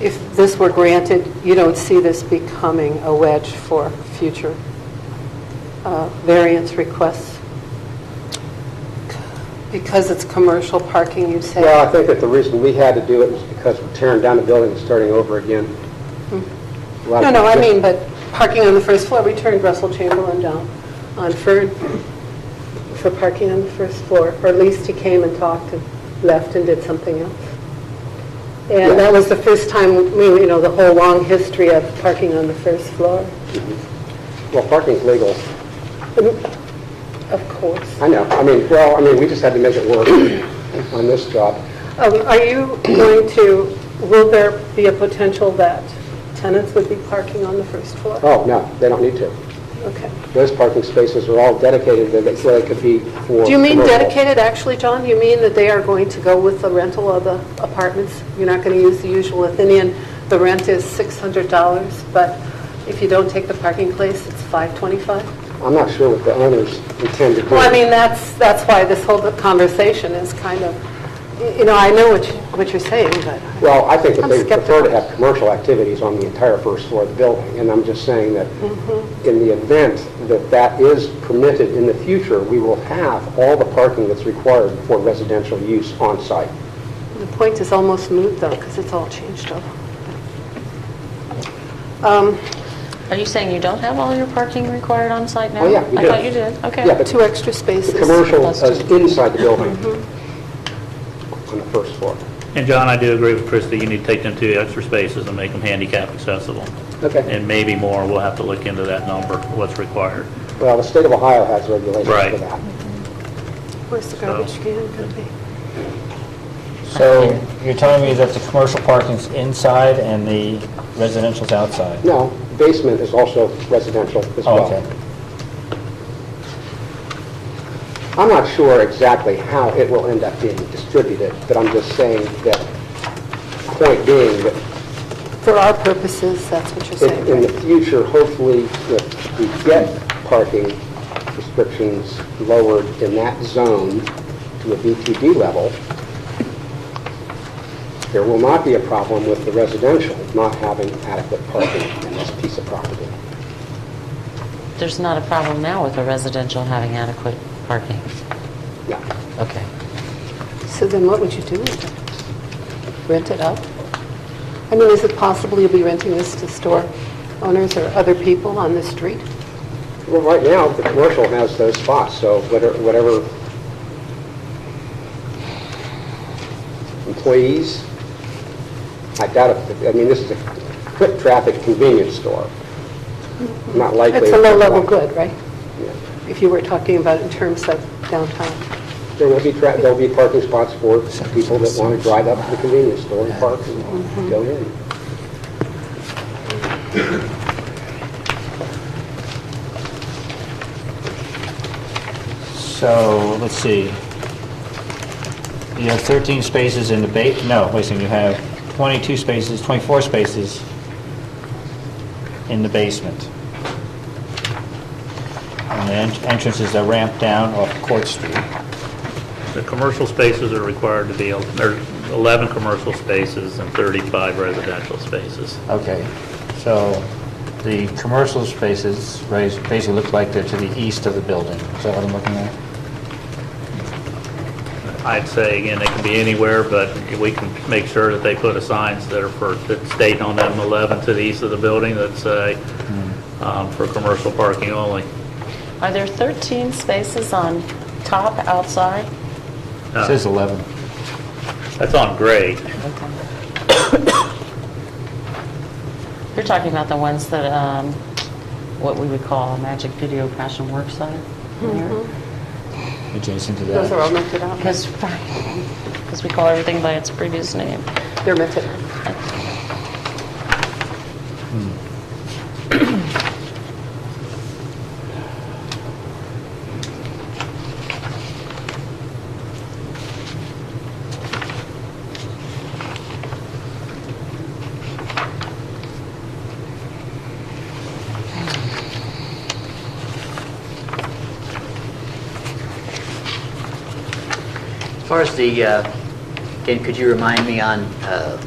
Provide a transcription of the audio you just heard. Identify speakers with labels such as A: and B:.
A: if this were granted, you don't see this becoming a wedge for future uh, variance requests? Because it's commercial parking, you say?
B: Well, I think that the reason we had to do it was because we're tearing down the building and starting over again. A lot
A: Hmm. No,
B: of
A: no, I
B: people-
A: mean, but parking on the first floor, we turned Russell Chamberlain down on Ferd for parking on the first floor, or at least he came and talked and left and did something else. And that was the first time, we, you know, the whole long history of parking on the first floor,
B: Well, parking's legal.
A: of course.
B: I know. I mean, well, I mean, we just had to make it work on this job.
A: Um, Are you going to, will there be a potential that tenants would be parking on the first floor?
B: Oh, no, they don't need to.
A: Okay.
B: Those parking spaces are all dedicated, they, they so they could be for...
A: Do you mean
B: commercial.
A: dedicated, actually, John? Do you mean that they are going to go with the rental of the apartments? You're not going to use the usual Athenian, the rent is $600, but if you don't take the parking place, it's $525?
B: I'm not sure what the owners intend to do.
A: Well, I mean, that's, that's why this whole conversation is kind of, y- you know, I know what, you- what you're saying, but...
B: Well, I think that
A: I'm
B: they prefer
A: skeptical.
B: to have commercial activities on the entire first floor of the building, and I'm just saying that
A: Mm-hmm.
B: in the event that that is permitted in the future, we will have all the parking that's required for residential use on-site.
A: The point is almost moot, though, because it's all changed over. Um,
C: Are you saying you don't have all your parking required on site now?
B: Oh, yeah, we
C: I
B: do.
C: thought you did, okay.
B: Yeah, but
A: Two extra
B: the
A: spaces.
B: commercial
C: Plus two.
B: is inside the building
A: Mm-hmm.
B: on the first floor.
D: And John, I do agree with Chris that you need to take them two extra spaces and make them handicap accessible.
B: Okay.
D: And maybe more, we'll have to look into that number, what's required.
B: Well, the state of Ohio has regulations for
D: Right.
B: that.
A: Where's the garbage can going to be?
E: So you're telling me that the commercial parking's inside and the residential's outside?
B: No, basement is also residential as
E: Oh,
B: well.
E: okay.
B: I'm not sure exactly how it will end up being distributed, but I'm just saying that, point being, that
A: For our purposes, that's what you're
B: if in
A: saying,
B: the
A: right?
B: future, hopefully, if we get parking restrictions lowered in that zone to a BTD level, there will not be a problem with the residential not having adequate parking in this piece of property.
C: There's not a problem now with the residential having adequate parking.
B: Yeah.
C: Okay.
A: So then what would you do with it? Rent it out? I mean, is it possible you'll be renting this to store owners or other people on the street?
B: Well, right now, the commercial has those spots, so whatever- whatever employees, I doubt it, I mean, this is a quick traffic convenience store, not likely.
A: It's a low-level good, right?
B: Yeah.
A: If you were talking about it in terms of downtown.
B: There will be, tra- there'll be parking spots for people that want to drive up to the convenience store and park and go in.
E: So, let's see. You have 13 spaces in the ba, no, wait a second, you have 22 spaces, 24 spaces in the basement. And the en- entrance is a ramp down off Court Street.
D: The commercial spaces are required to be, there's 11 commercial spaces and 35 residential spaces.
E: Okay, so the commercial spaces raise- basically look like they're to the east of the building. Is that what I'm looking at?
D: I'd say, again, they can be anywhere, but we can make sure that they put a signs that are for, that state on them 11 to the east of the building that say, um, for commercial parking only.
C: Are there 13 spaces on top outside?
E: It says 11.
D: That's on grade.
C: You're talking about the ones that, um, what we would call a Magic Video Passion Work Site?
E: adjacent to
A: Those are all
E: that.
A: rented out.
C: Because, because we call everything by its previous name.
A: They're rented out.
F: As far as the, uh, again, could you remind me on uh,